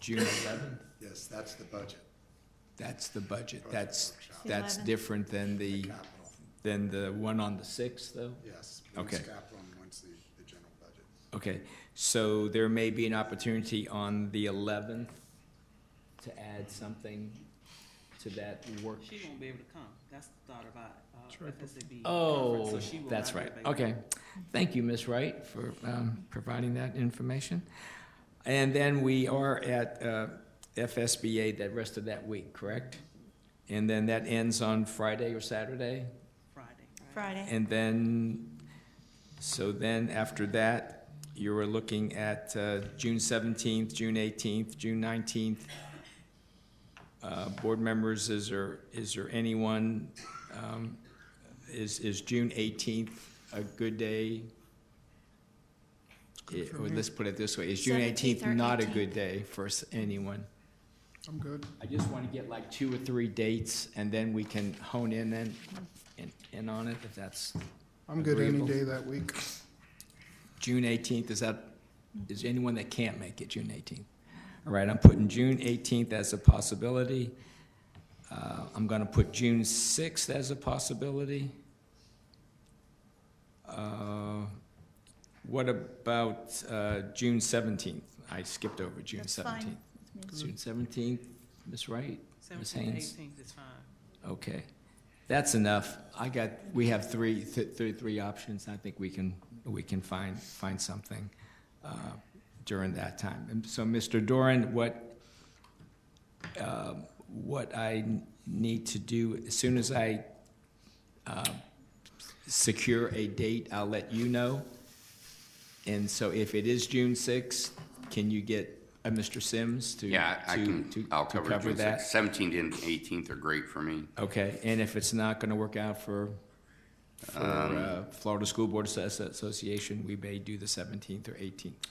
June eleventh? Yes, that's the budget, That's the budget. That's, workshop. that's 11th. different than the the, capital, than the one on the sixth, though? yes. Once Okay. capital and once the, the general budget. Okay, so there may be an opportunity on the eleventh to add something to that work. She won't be able to come. That's the thought about uh, FSAB. conference, Oh, so she will that's not be right. available. Okay. Thank you, Ms. Wright, for um, providing that information. And then we are at uh, FSBA that rest of that week, correct? And then that ends on Friday or Saturday? Friday. Friday. And then, so then after that, you were looking at uh, June seventeenth, June eighteenth, June nineteenth. Uh, Board members, is there, is there anyone, um, is, is June eighteenth a good day? It- Or let's put it this way, is June 17th eighteenth or not a 18th? good day for s- anyone? I'm good. I just want to get like two or three dates, and then we can hone in and, in- in on it, if that's I'm good any Agreeable. day that week. June eighteenth, is that, is anyone that can't make it June eighteenth? All right, I'm putting June eighteenth as a possibility. Uh, I'm gonna put June sixth as a possibility. Uh, What about, uh, June seventeenth? I skipped over June That's fine seventeenth. with me. June seventeenth, Ms. Wright? Ms. Seventeenth, Haynes? eighteenth is fine. Okay, that's enough. I got, we have three, th- three, three options. I think we can, we can find, find something uh, during that time. And so, Mr. Doran, what, um, what I need to do, as soon as I uh, secure a date, I'll let you know. And so if it is June sixth, can you get uh, Mr. Sims to? Yeah, I I to- can, to- I'll to cover June that? 6th. 17th and 18th are great for me. Okay, and if it's not gonna work out for, for, Um, uh, Florida School Board Asso- Association, we may do the seventeenth or eighteenth.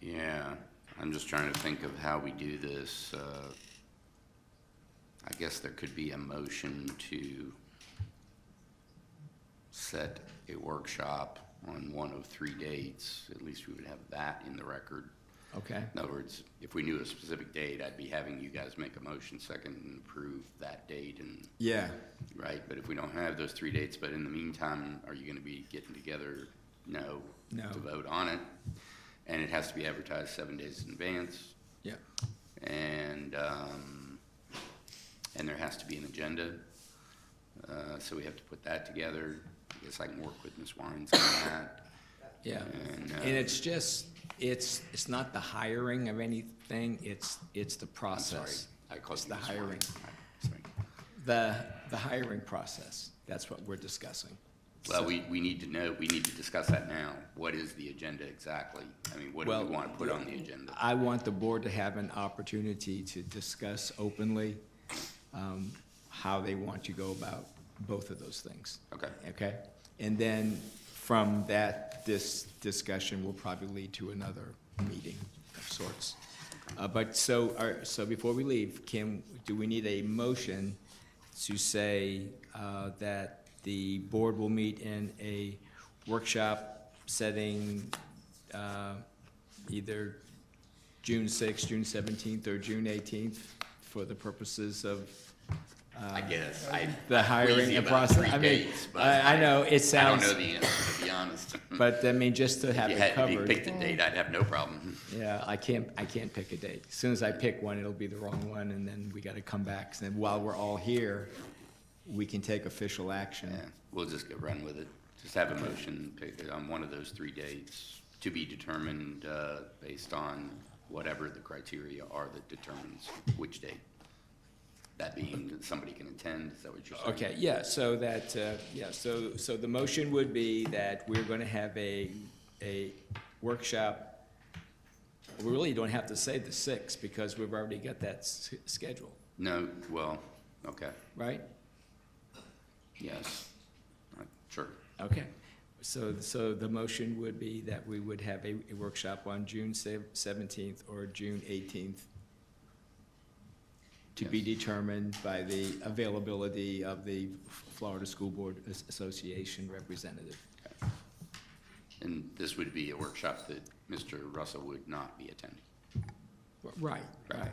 Yeah, I'm just trying to think of how we do this. uh, I guess there could be a motion to set a workshop on one of three dates. At least we would have that in the record. Okay, In other words, if we knew a specific date, I'd be having you guys make a motion second and approve that date and yeah, Right, but if we don't have those three dates, but in the meantime, are you gonna be getting together? No. No. To vote on it, and it has to be advertised seven days in advance, yeah, and, um, and there has to be an agenda. Uh, so we have to put that together, I guess I can work with Ms. Wines on that, yeah. and, uh, And it's just, it's, it's not the hiring of anything, it's, it's the I'm sorry, process. I called It's you the Ms. hiring. Wines. I- sorry. The, the hiring process, that's what we're discussing. Well, So- we, we need to know, we need to discuss that now, what is the agenda exactly? I mean, what do Well, we wanna put on the agenda? I want the board to have an opportunity to discuss openly um, how they want to go about both of those things. Okay. Okay? And then from that, this discussion will probably lead to another meeting of sorts. Uh, But so, are- so before we leave, can, do we need a motion to say uh, that the board will meet in a workshop setting uh, either June 6th, June 17th, or June 18th for the purposes of I guess. Uh, I, the hiring Queasy and about process? three I mean, dates, but I, I know, it I don't sounds, know the answer, to be honest. Hmm. but I mean, just to have If you it had me pick covered. the date, I'd have no problem. Yeah, I can't, I can't pick a date. As soon as I pick one, it'll be the wrong one, and then we gotta come back. And while we're all here, we can take official action. Yeah, We'll just go run with it. Just have a motion pick it on one of those three dates to be determined uh, based on whatever the criteria are that determines which date. That being that somebody can attend, is that what you're saying? Okay, yeah, so that, uh, yeah, so, so the motion would be that we're gonna have a, a workshop. We really don't have to say the sixth, because we've already got that s- scheduled, No, well, okay, right? yes, Uh, sure. Okay, so, so the motion would be that we would have a a workshop on June seventeenth or June eighteenth to be determined by the availability of the Florida School Board As- Association representative. And this would be a workshop that Mr. Russell would not be attending. Right, right.